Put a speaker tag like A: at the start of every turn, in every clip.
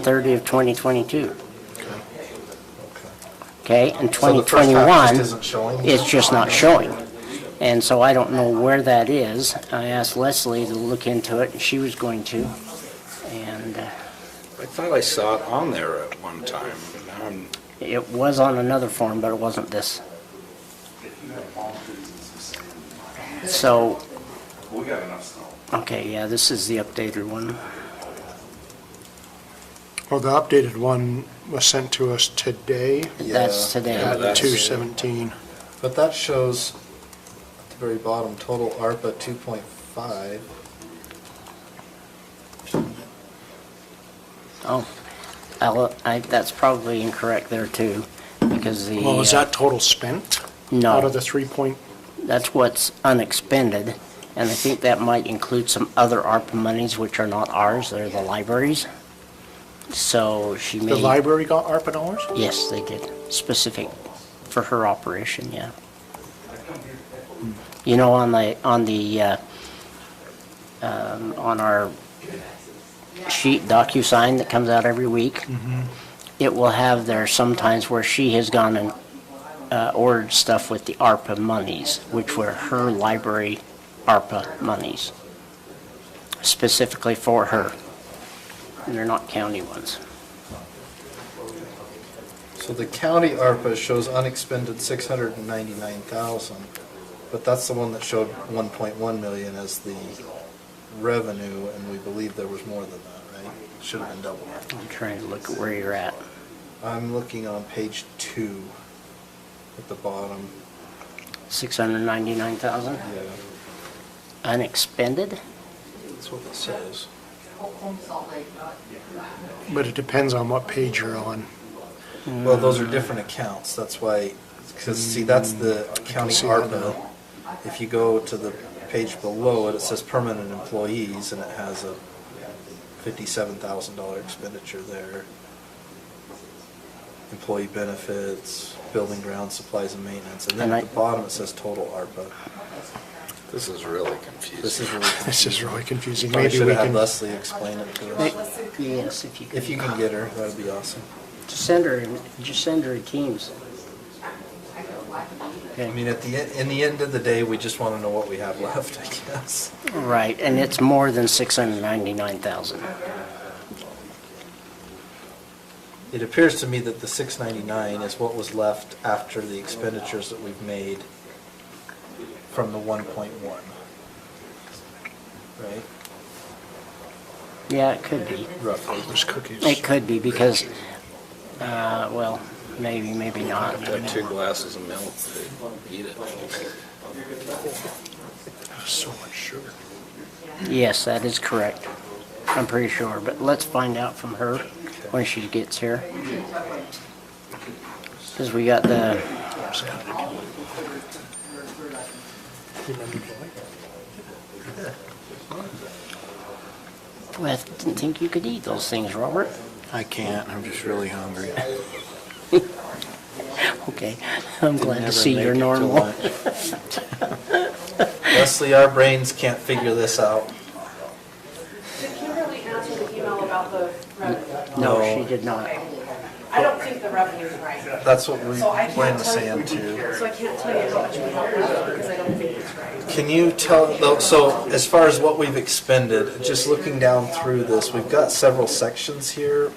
A: 30 of 2022. Okay, and
B: So the first half
A: 2021,
B: just isn't showing?
A: it's just not showing. And so I don't know where that is. I asked Leslie to look into it, and she was going to. And uh,
C: I thought I saw it on there at one time, Um, but now I'm,
A: it was on another form, but it wasn't this. So,
D: We got enough snow.
A: okay, yeah, this is the updated one.
E: Well, the updated one was sent to us today
A: That's
B: Yeah.
A: today.
C: Yeah,
E: at
C: that's-
E: two seventeen.
B: But that shows at the very bottom, total ARPA 2.5.
A: Oh, I'll- I, that's probably incorrect there too, because the.
E: Well, is
A: uh,
E: that total spent?
A: No.
E: Out of the three point,
A: That's what's unexpended, and I think that might include some other ARPA monies which are not ours, they're the libraries. So she may.
E: the library got ARPA dollars?
A: Yes, they did, specific for her operation, yeah. You know, on the, on the, uh, um, on our sheet DocuSign that comes out every week, it will have there sometimes where she has gone and uh, ordered stuff with the ARPA monies, which were her library ARPA monies, specifically for her. And they're not county ones.
B: So the county ARPA shows unexpended 699,000, but that's the one that showed 1.1 million as the revenue, and we believe there was more than that, right? Should have been double that.
A: I'm trying to look at where you're at.
B: I'm looking on page two at the bottom.
A: 699,000
B: Yeah,
A: unexpended?
B: that's what it says.
E: But it depends on what page you're on.
B: Well, those are different accounts, that's why, because see, that's the county
E: see that
B: ARPA. If you go to the page below it, it says permanent employees, and it has a fifty-seven thousand dollar expenditure there. Employee benefits, building ground supplies and maintenance, and then
A: And I-
B: at the bottom it says total ARPA.
C: this is really
B: This
C: confusing.
B: is really,
E: This is really confusing.
B: probably
E: Maybe
B: should
E: we
B: have had
E: can,
B: Leslie explain it to us.
A: Yes, if you could.
B: If you can get her, that'd be awesome.
A: Just send her, just send her Teams.
B: I mean, at the, e- in the end of the day, we just want to know what we have left, I guess.
A: Right, and it's more than 699,000.
B: It appears to me that the six ninety-nine is what was left after the expenditures that we've made from the one point one. Right,
A: Yeah, it could be.
B: roughly.
E: there's cookies.
A: It could be because, uh, well, maybe, maybe not.
C: Got two glasses of milk, eat it.
E: So much sugar.
A: Yes, that is correct. I'm pretty sure, but let's find out from her when she gets here. Because we got the, I didn't think you could eat those things, Robert.
F: I can't, I'm just really hungry.
A: Okay, I'm glad to
F: Never
A: see
F: make
A: you're
F: it to
A: normal.
F: lunch.
B: Leslie, our brains can't figure this out.
G: Did Kimberly answer the email about the revenue?
A: No,
B: No.
A: she did not.
G: I don't think the revenue is right,
B: That's what we
G: So I
B: ran
G: can't
B: the
G: tell you-
B: sand to.
G: so I can't tell you how much we have left because I don't think it's right.
B: Can you tell, though, so as far as what we've expended, just looking down through this, we've got several sections here.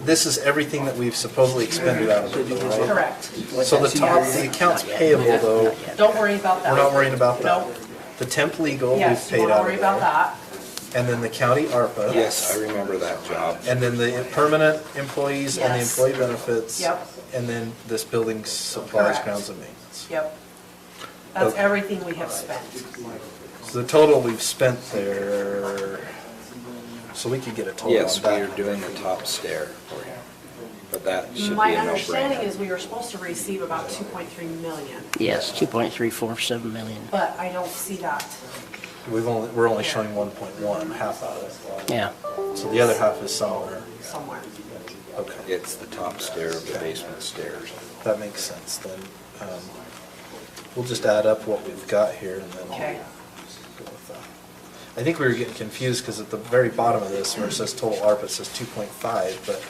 B: This is everything that we've supposedly expended out of it, though, right?
G: Correct.
B: So the top, the accounts payable though,
G: Don't worry about that.
B: we're not worrying about
G: No.
B: that. The temp legal, we've
G: Yes,
B: paid
G: don't
B: out
G: worry
B: of
G: about
B: there.
G: that.
B: And then the county ARPA.
C: Yes, I remember that job.
B: And then the permanent employees and the
G: Yes.
B: employee benefits.
G: Yep.
B: And then this building supplies,
G: Correct.
B: grounds and maintenance.
G: Yep. That's
B: Okay.
G: everything we have spent.
B: So the total we've spent there, so we could get a total
C: Yes,
B: on
C: we are
B: that.
C: doing the top stair for you, but that should be a
G: My understanding
C: no-brainer.
G: is we were supposed to receive about 2.3 million,
A: Yes, 2.347 million.
G: but I don't see that.
B: We've only, we're only showing one point one, half of it.
A: Yeah,
B: So the other half is somewhere.
G: Somewhere.
B: Okay,
C: It's the top stair of the basement stairs.
B: that makes sense then. Um, We'll just add up what we've got here and then.
G: Okay.
B: go with that. I think we were getting confused because at the very bottom of this, where it says total ARPA, it says two point five, but